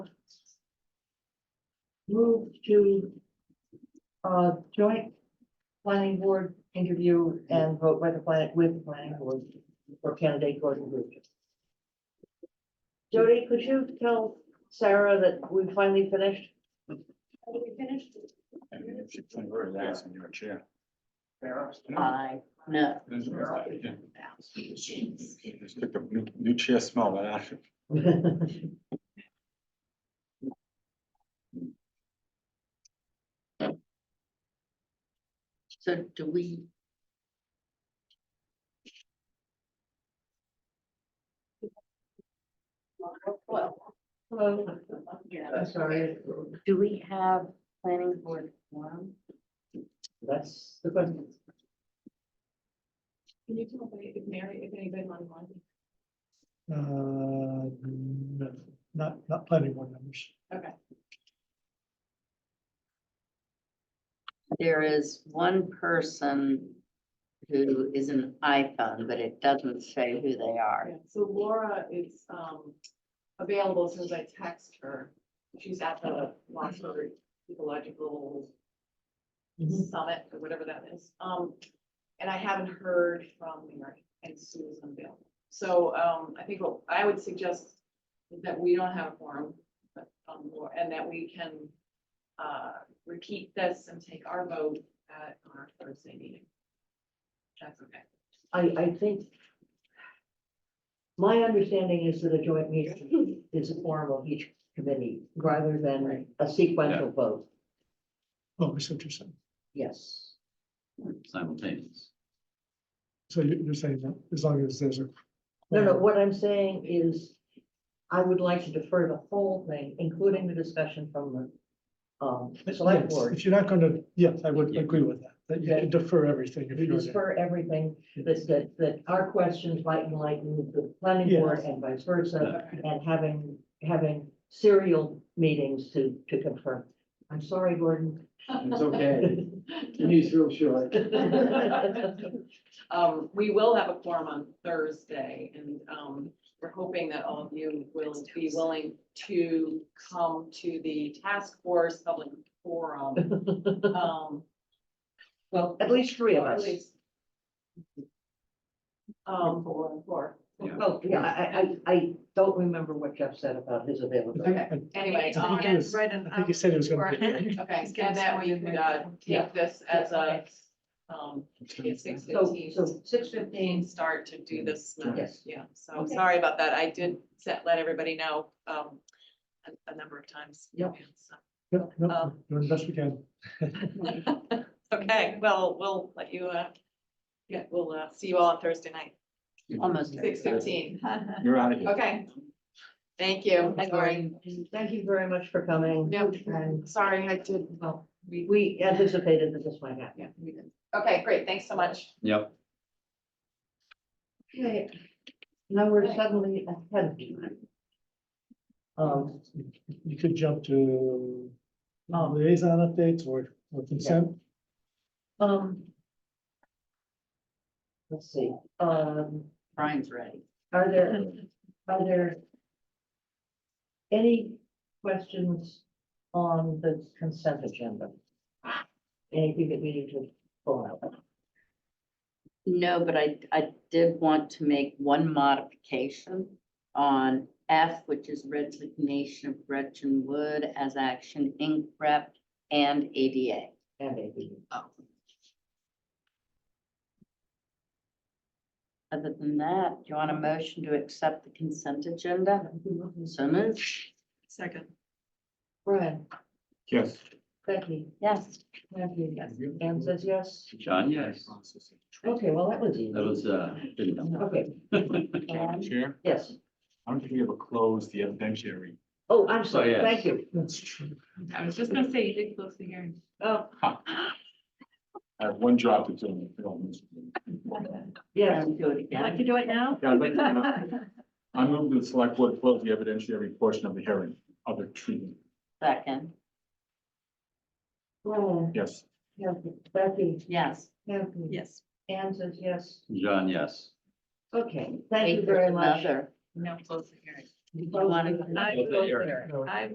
move to uh, joint planning board interview and vote by the planet with planning board for candidate Gordon Bridges. Jody, could you tell Sarah that we finally finished? Are we finished? And if she can wear that in your chair. I know. This is- yeah. It's like a New new chair smell, but actually. So do we? Well, Hello, yeah, I'm sorry, do we have planning board forum? that's the question. Can you tell me if Mary, if anybody on Monday? Uh, no, not, not planning board members. There is one person who is an iPhone, but it doesn't say who they are. Yeah, So Laura is um available as soon as I text her. She's at the Lawsburg Ecological Mhm. Summit or whatever that is. Um, and I haven't heard from Mary and Sue is unavailable. So um, I think what I would suggest is that we don't have a forum, but um, Laura- and that we can uh repeat this and take our vote at our Thursday meeting. That's okay. I, I think. My understanding is that a joint meeting is a form of each committee rather than a sequential vote. Oh, I see what you're saying. Yes. simultaneous. So you- you're saying that as long as there's a. No, no, what I'm saying is I would like to defer the whole thing, including the discussion from the um select Yes, board. If you're not gonna, yes, I would Yeah. agree with that, that you can defer everything if To you're. Defer everything that that that our questions might enlighten the planning board Yes. and vice versa. Okay. And having having serial meetings to to confirm. I'm sorry, Gordon. It's okay. He's real short. Um, we will have a forum on Thursday and, um, we're hoping that all of you will be willing to come to the task force public forum. Um, Well, at least three of or at us. least. Um, four, four. Yeah. Well, yeah, I, I, I don't remember what Jeff said about his availability. Okay. I- Anyway, I um, think it was- I think you said it was gonna be. okay, and that way you could, uh, take this as a, um, six So, fifteen. so six fifteen fifteen, start to do this. now. Yes. Yeah, so I'm sorry about that. I did set, let everybody know, um, a, a number of times. Yep. So- No, no, Um, Doing the best we can. Okay, well, we'll let you, uh, yeah, we'll, uh, see you all on Thursday night, Almost. six fifteen. You're out of here. Okay. Thank you. Sorry. thank you very much for coming. No, And sorry, I did, well, we, we, we anticipated that this might happen. yeah, we did. Okay, great. Thanks so much. Yep. Okay, now we're suddenly ahead of time. Um, You could jump to liaison updates or or consent. um. Let's see, um. Brian's ready. Are there, are there any questions on the consent agenda? Anything that we need to pull out? No, but I, I did want to make one modification on F, which is resignation of Gretchen Wood as Action Inc. rep and ADA. And maybe, Other than that, do you want a motion to accept the consent agenda? So moved. Second. Brian, Yes. Becky, Yes. Matthew, Anne says yes. John, yes. Okay, well, that was easy. That was, uh, didn't know. Okay, Um, And Chair, yes. I don't think we ever closed the evidentiary. Oh, I'm sorry. Oh, yes. Thank you. That's true. I was just gonna say, you did close the hearing. Oh, I have one job to do. yes. do it again. do it now? Yeah, I'd like to- I move to the select board close the evidentiary portion of the hearing, of the treatment. Second. Brian, Yes. Matthew, Becky, Yes. Matthew. Yes. Anne says yes. John, yes. Okay, thank you Wait, very there's much. another. No, close the hearing. Did you want to? I Close the hearing. No. I